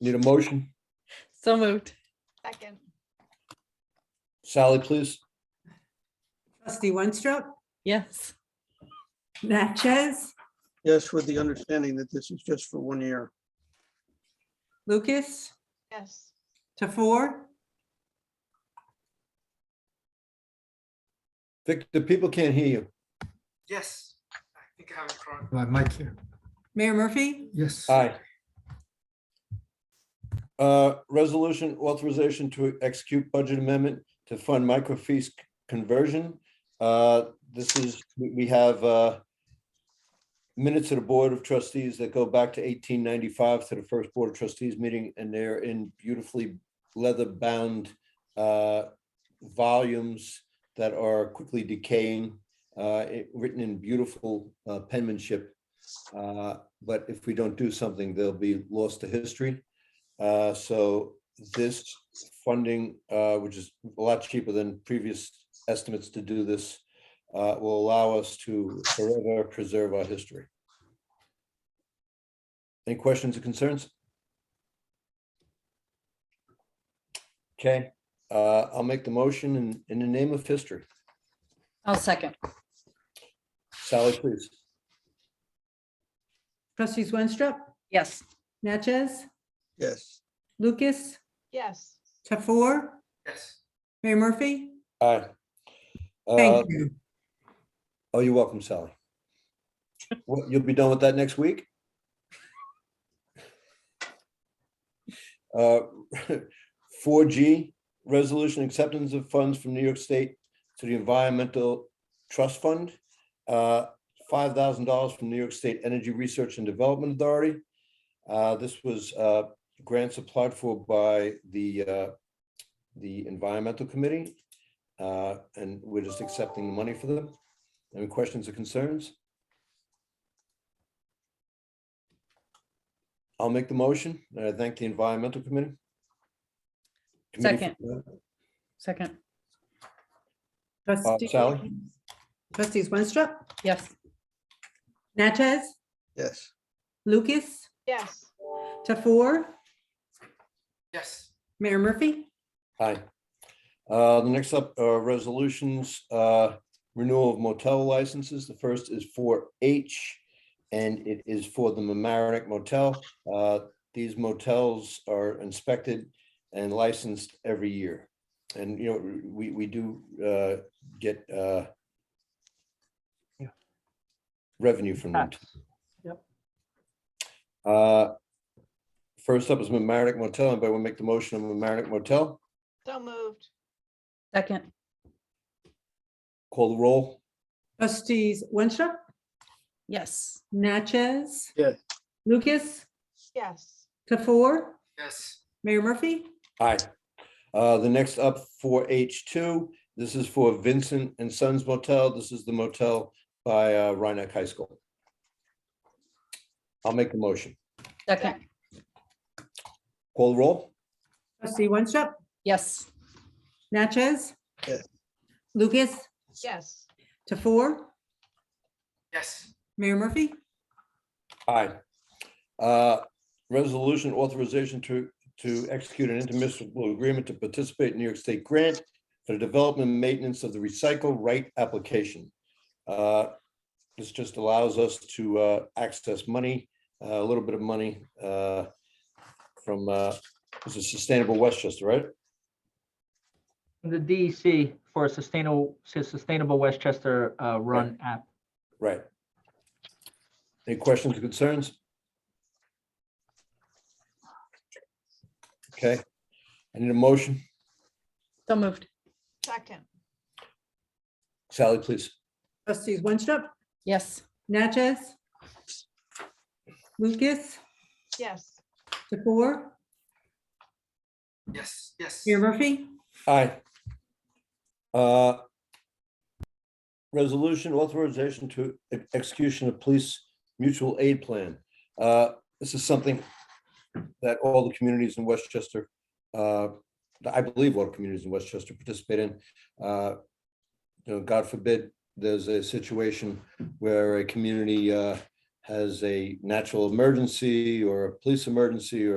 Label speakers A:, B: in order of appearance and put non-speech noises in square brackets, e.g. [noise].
A: Need a motion?
B: So moved.
C: Second,
A: Sally, please.
D: Trustee Winstrup,
B: Yes.
D: Natchez,
E: Yes, with the understanding that this is just for one year.
D: Lucas,
C: yes.
D: Tafour,
A: Vic, the people can't hear you.
F: Yes, I think I have it correct.
G: My mic here,
D: Mayor Murphy,
G: yes.
A: Aye. Uh, Resolution authorization to execute budget amendment to fund microfiche conversion. Uh, This is, we we have uh, minutes of the Board of Trustees that go back to 1895 to the first Board of Trustees meeting, and they're in beautifully leather-bound uh, volumes that are quickly decaying, uh, it- written in beautiful uh, penmanship. Uh, But if we don't do something, they'll be lost to history. Uh, So this funding, uh, which is a lot cheaper than previous estimates to do this, uh, will allow us to forever preserve our history. Any questions or concerns? Okay, uh, I'll make the motion in, in the name of history.
B: I'll second.
A: Sally, please.
D: trustees Winstrup,
B: Yes.
D: Natchez,
E: Yes,
D: Lucas,
C: Yes,
D: Tafour,
F: Yes,
D: Mayor Murphy.
A: Aye. Uh,
D: Thank you.
A: Oh, you're welcome, Sally. What, you'll be done with that next week? Uh, [laughs] Four G, resolution acceptance of funds from New York State to the Environmental Trust Fund. uh, Five thousand dollars from New York State Energy Research and Development Authority. Uh, This was uh, grants applied for by the, uh, the Environmental Committee. uh, And we're just accepting the money for them. Any questions or concerns? I'll make the motion, and I thank the Environmental Committee. Committee for-
B: Second.
A: Uh,
D: Trustee-
A: Sally?
D: Trustees Winstrup,
B: Yes.
D: Natchez,
E: yes,
D: Lucas,
C: yes,
D: Tafour,
F: yes,
D: Mayor Murphy,
A: Aye. Uh, The next up are resolutions, uh, renewal of motel licenses. The first is for H, and it is for the Mamaroneck Motel. Uh, These motels are inspected and licensed every year. And, you know, we, we do uh, get uh,
G: Yeah.
A: revenue from them.
G: Tax. Yep.
A: Uh, First up is Mamaroneck Motel. Anybody want to make the motion on Mamaroneck Motel?
C: so moved.
B: Second.
A: Call the roll.
D: trustees Winstrup,
B: Yes.
D: Natchez.
E: Yes.
D: Lucas,
C: Yes,
D: Tafour,
F: yes,
D: Mayor Murphy,
A: Aye. Uh, the next up for H two, this is for Vincent and Sons Motel. This is the motel by uh, Rhinebeck High School. I'll make the motion.
B: Second.
A: Call the roll?
D: trustee Winstrup,
B: Yes.
D: Natchez,
E: Yes.
D: Lucas,
C: yes,
D: Tafour,
F: yes,
D: Mayor Murphy,
A: Aye. Uh, Resolution authorization to, to execute an intermunicipal agreement to participate in New York State grant for the development and maintenance of the recycle right application. Uh, This just allows us to uh, access money, uh, a little bit of money uh, from, uh, this is Sustainable Westchester, right?
H: The DEC for sustainable, sustainable Westchester uh, Run app.
A: Right. Any questions or concerns? Okay, I need a motion.
B: So moved.
C: second,
A: Sally, please.
D: trustees Winstrup,
B: Yes.
D: Natchez, Lucas,
C: yes,
D: DeFour,
F: yes, yes.
D: Mayor Murphy,
A: Aye. Uh, Resolution authorization to e- execution of police mutual aid plan. Uh, This is something that all the communities in Westchester, uh, I believe all the communities in Westchester participate in. Uh, You know, God forbid, there's a situation where a community uh, has a natural emergency or a police emergency or